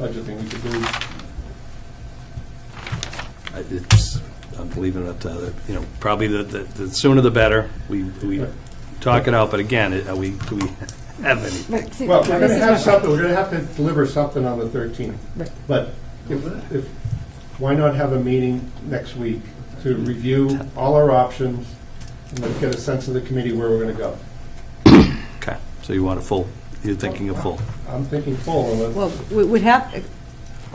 budgeting we could do. I- It's, I'm leaving it up to other, you know, probably the, the the sooner the better. We, we talk it out, but again, it- are we, do we have any? Right, see, Well, we're going this to is have my- something, we're going to have to deliver something on the 13th. Right. But if, if- why not have a meeting next week to review all our options and let's get a sense of the committee where we're going to go? Okay, so you want a full, you're thinking a full. I'm thinking full, and let's- Well, we would have, eh,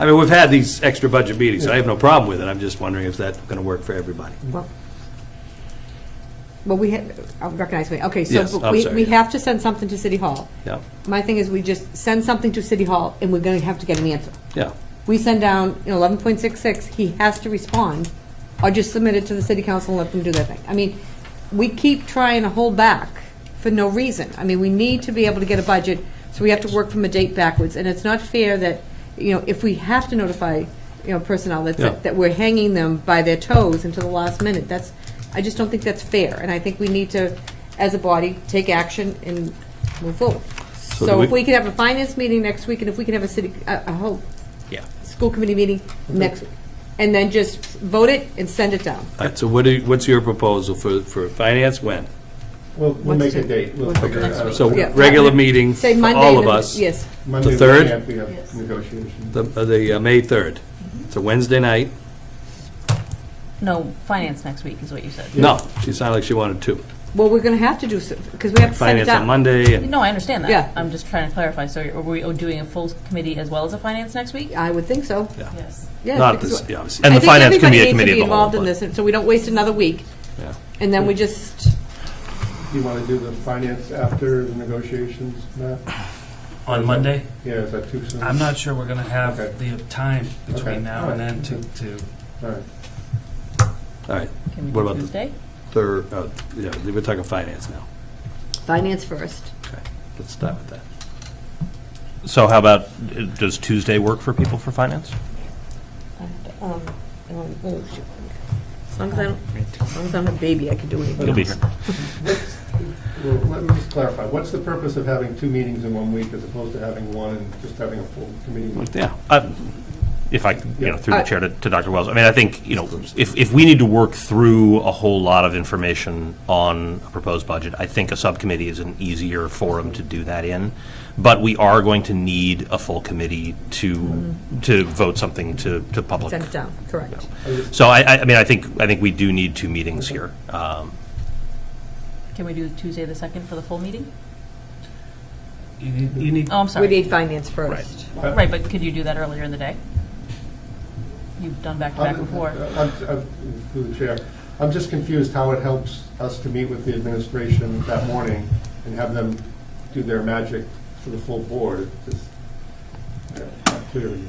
I mean, we've had these extra budget meetings, I have no problem with it. I'm just wondering if that's going to work for everybody. well, well, we have, I recognize me, okay, so. Yes, I'm we- sorry, We yeah. have to send something to City Hall. Yeah, My thing is, we just send something to City Hall, and we're going to have to get an answer. yeah. We send down, you know, 11.66, he has to respond, or just submit it to the City Council and let them do their thing. I mean, we keep trying to hold back for no reason. I mean, we need to be able to get a budget, so we have to work from a date backwards, and it's not fair that, you know, if we have to notify, you know, personnel, that's Yeah. it, that we're hanging them by their toes until the last minute. That's, I just don't think that's fair, and I think we need to, as a body, take action and move forward. do So if we- we could have a finance meeting next week, and if we can have a city, a a whole Yeah. school committee meeting next week. And then just vote it and send it down. All right, so what do, you- what's your proposal for, for finance when? we'll, we'll make a What's the- date. We'll what's the figure it next out. So Yeah. regular meeting Say for Monday. all of the- us, the, Yes, Monday we third? can't, We have negotiations. uh, the uh, May 3rd. It's a Wednesday night. No, finance next week is what you said. No, she sounded like she wanted two. well, we're going to have to do, because we have to send it Finance on down. Monday and No, I understand that. Yeah. I'm just trying to clarify. So are we doing a full committee as well as a finance next week? I would think so, Yes. yeah. not because this, we- yeah, obviously. And I the think finance can everybody be needs a to committee be of the whole. involved in but- this, and so we don't waste another week, Yeah. and then we just, Do you want to do the finance after the negotiations, Matt? On Monday? Yeah, is that too soon? I'm not sure we're going to have Okay. the time Okay. between now and then to, to All right. All right, Can we What do about the- Tuesday? third, oh, yeah, we're talking finance now. finance first. Okay, let's start with that. So how about, uh, does Tuesday work for people for finance? Um, um, oh, shoot. As long as I don't, as long as I'm a baby, I can do anything. You'll be here. What's- Well, let me just clarify, what's the purpose of having two meetings in one week as opposed to having one and just having a full committee? meeting? Yeah, Uh, If I, you know, through Yeah. the chair to to Dr. Wells, I mean, I think, you know, if, if we need to work through a whole lot of information on a proposed budget, I think a subcommittee is an easier forum to do that in. But we are going to need a full committee to, to vote something to, to public. Send it down, correct. So I, I- I mean, I think, I think we do need two meetings here. Um, Can we do Tuesday the second for the full meeting? you need, you need Oh, I'm We sorry. need finance first. Right, but could you do that earlier in the day? You've done back to back I'm- before. I'm- I'm- Through the chair, I'm just confused how it helps us to meet with the administration that morning and have them do their magic for the full board. It's just, yeah, not clear to me.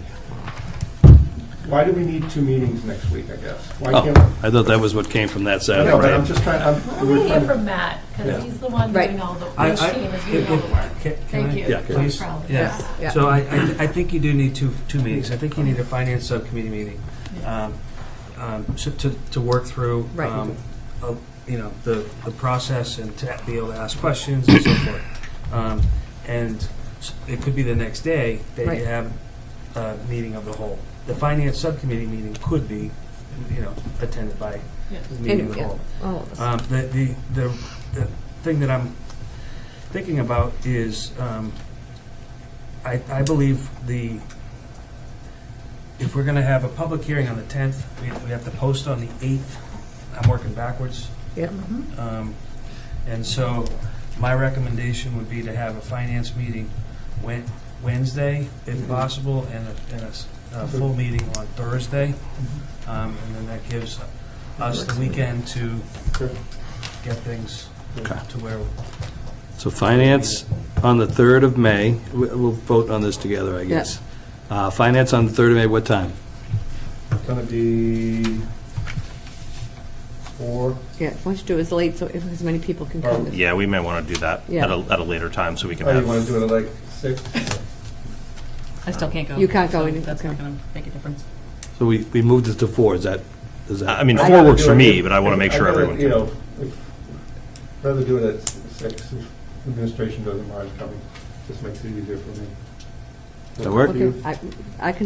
Why do we need two meetings next week, I guess? Why can't, oh, I thought that was what came from that side. no, but I'm just trying, I'm, Why don't we're we hear trying to, from Matt, Yeah. because he's the one Right. doing all the, I- which I- team is if- doing all the if- work. Can- can Thank I- you. Yeah, No please. problem. Yeah. Yeah. So I, I, I think you do need two, two meetings. I think you need a finance subcommittee meeting, um, um, so to, to work through, Right. um, uh, you know, the, the process and to be able to ask questions and so forth. Um, and s- it could be the next day that Right. you have a meeting of the whole. The finance subcommittee meeting could be, you know, attended by Yeah. the meeting of And- the whole. yeah, Oh, all of us. Uh, Um, The, the, the the thing that I'm thinking about is, um, I, I believe the, if we're going to have a public hearing on the 10th, we we have to post on the 8th. I'm working backwards. Yep. Um, And so my recommendation would be to have a finance meeting Wed- Wednesday, if possible, and a, and a s- a full meeting on Thursday. Um, And then that gives us the weekend to get things Okay. to where. So finance on the 3rd of May, We- we'll vote on this together, I guess. Uh, Finance on the 3rd of May, what time? it's gonna be four, Yeah, why don't you do it as late, so if as many people can oh, come. as- Yeah, we may want to do that at a, at a later time so we can oh, have. you wanna do it at like six? I still can't go. You can't go so in, That's not okay. going to make a difference. So we we moved it to 4, is that, is that? I I mean, I'd four rather works do for it me, if- but I want to I'd make sure rather, everyone You can. know, if- rather do it at six, if administration doesn't mind coming, just makes it easier for me. That work? Okay, I I can